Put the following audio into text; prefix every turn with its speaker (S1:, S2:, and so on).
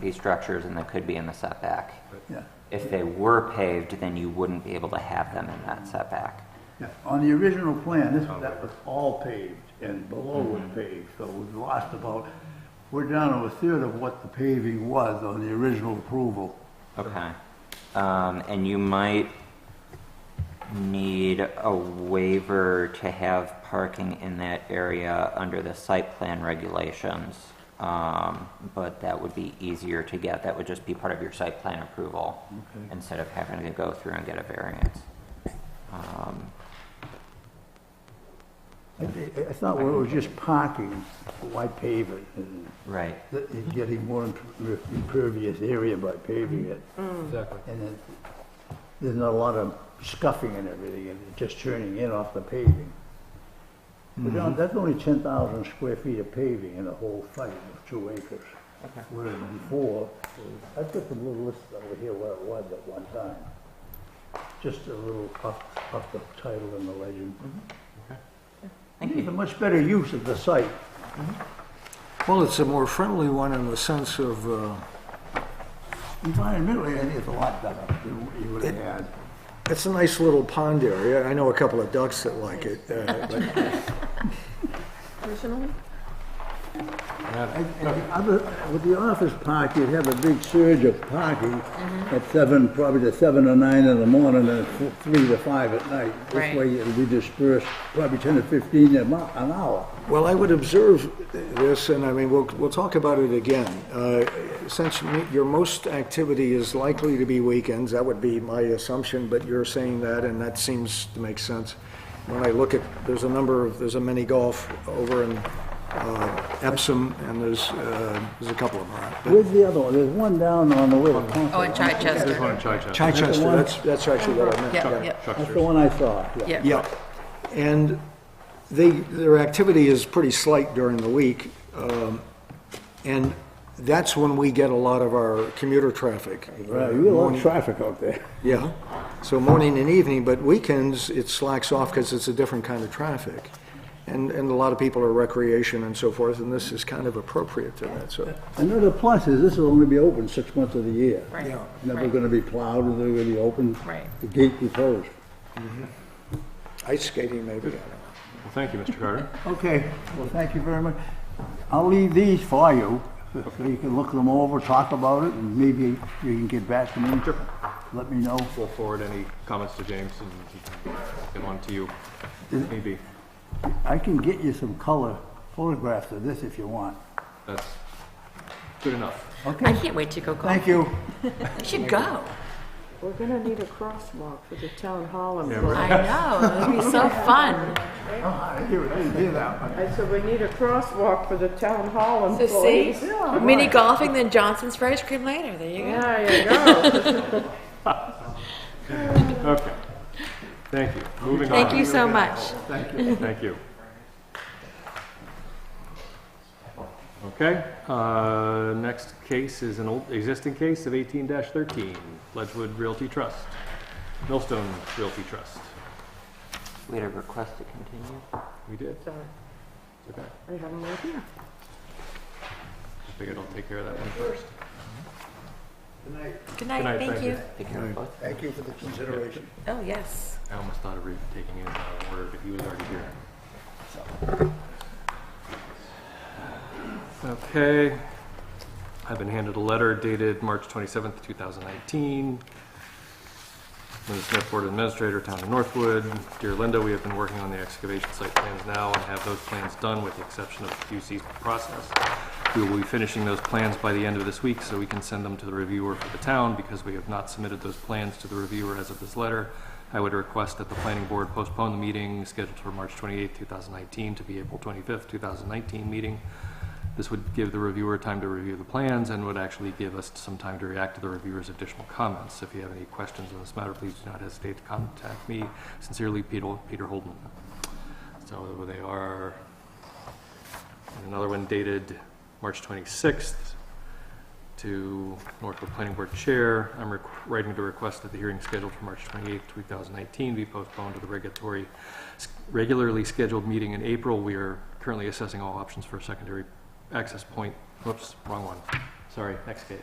S1: be structures and they could be in the setback.
S2: Yeah,
S1: If they were paved, then you wouldn't be able to have them in that setback.
S2: yeah. On the original plan, this, that was all paved and below was paved, so we've lost about, we're down to a third of what the paving was on the original approval.
S1: Okay. Um, and you might need a waiver to have parking in that area under the site plan regulations. Um, but that would be easier to get. That would just be part of your site plan approval
S2: Okay.
S1: instead of having to go through and get a variance. Um,
S2: I, I- I thought when it was just parking, why pave it? And
S1: right.
S2: that You're getting more imper- impervious area by paving it.
S3: Exactly.
S2: And then, there's not a lot of scuffing and everything, and it's just turning in off the paving. But John, that's only ten thousand square feet of paving in the whole site of two acres. Whereas before, I've got the little list over here where it was at one time. Just a little off, off the title and the legend.
S1: Thank
S2: It's a
S1: you.
S2: much better use of the site.
S3: Well, it's a more friendly one in the sense of, uh,
S2: Environmentally, I think it's a lot better than what you would have had.
S3: it's a nice little pond area. I know a couple of ducks that like it. uh, but-
S4: Personally?
S2: And- and the other- With the office park, you'd have a big surge of parking at seven, probably to seven or nine in the morning and f- three to five at night. This
S4: Right.
S2: way it'll be dispersed probably ten to fifteen a mo- an hour.
S3: Well, I would observe this, and I mean, we'll, we'll talk about it again. Uh, Since me- your most activity is likely to be weekends, that would be my assumption, but you're saying that, and that seems to make sense. When I look at, there's a number of, there's a mini golf over in uh, Epsom, and there's, uh, there's a couple of them. around. But-
S2: Where's the other one? There's one down on the way. to Concord.
S4: Oh, in Chichester.
S3: Chichester, that's, that's actually what I meant.
S4: Yeah, yeah,
S2: That's the one I saw, yeah.
S4: yeah.
S3: Yeah, and they, their activity is pretty slight during the week, um, and that's when we get a lot of our commuter traffic.
S2: Right, You got a lot of traffic out there.
S3: Yeah, so morning and evening, but weekends, it slacks off because it's a different kind of traffic. And, and a lot of people are recreation and so forth, and this is kind of appropriate to that, so.
S2: Another plus is this will only be open six months of the year.
S4: Right.
S3: Yeah.
S2: Never
S4: right.
S2: gonna be plowed, or they're gonna be open.
S4: Right.
S2: The gate be closed.
S3: Ice skating maybe, I don't know.
S5: Well, thank you, Mr. Carter.
S2: Okay, well, thank you very much. I'll leave these for you, so you can look them over, talk about it, and maybe you can get back to me. Let me know.
S5: We'll forward any comments to James and he can get one to you, maybe.
S2: I can get you some color photographs of this if you want.
S5: That's good enough.
S4: I
S2: Okay,
S4: can't wait to go golfing.
S2: thank you.
S4: I should go.
S6: We're gonna need a crosswalk for the town hall and.
S4: I know, it'll be so fun.
S2: I didn't hear that one.
S6: I said, we need a crosswalk for the town hall and.
S4: To see, mini golfing, then Johnson's for ice cream later, there you go.
S6: There you go.
S5: Okay. Thank you. Moving on.
S4: Thank you so much.
S5: Thank you. Okay, uh, next case is an old, existing case of eighteen thirteen, Ledgewood Realty Trust, Millstone Realty Trust.
S1: We had a request to continue.
S5: We did,
S6: Sorry,
S5: okay.
S6: I have no idea.
S5: I figured I'll take care of that one first.
S4: Good
S5: Good
S4: night,
S5: night,
S4: thank
S5: thank
S4: you.
S1: Take care of both.
S2: Thank you for the consideration.
S4: Oh, yes.
S5: I almost thought of re- taking it out of order, but he was already here. Okay. I've been handed a letter dated March 27th, 2019. From the Smith Board Administrator, Town of Northwood. Dear Linda, we have been working on the excavation site plans now and have those plans done with the exception of the QC process. We will be finishing those plans by the end of this week, so we can send them to the reviewer for the town, because we have not submitted those plans to the reviewer as of this letter. I would request that the planning board postpone the meeting scheduled for March 28, 2019, to the April 25, 2019 meeting. This would give the reviewer time to review the plans and would actually give us some time to react to the reviewer's additional comments. If you have any questions on this matter, please do not hesitate to contact me. Sincerely, Peter Peter Holden. So they are and Another one dated March 26th to Northwood Planning Board Chair. I'm requ- writing to request that the hearing scheduled for March 28th, 2019 be postponed to the regulatory, s- regularly scheduled meeting in April. We are currently assessing all options for a secondary access point. Whoops, wrong one. Sorry, next case.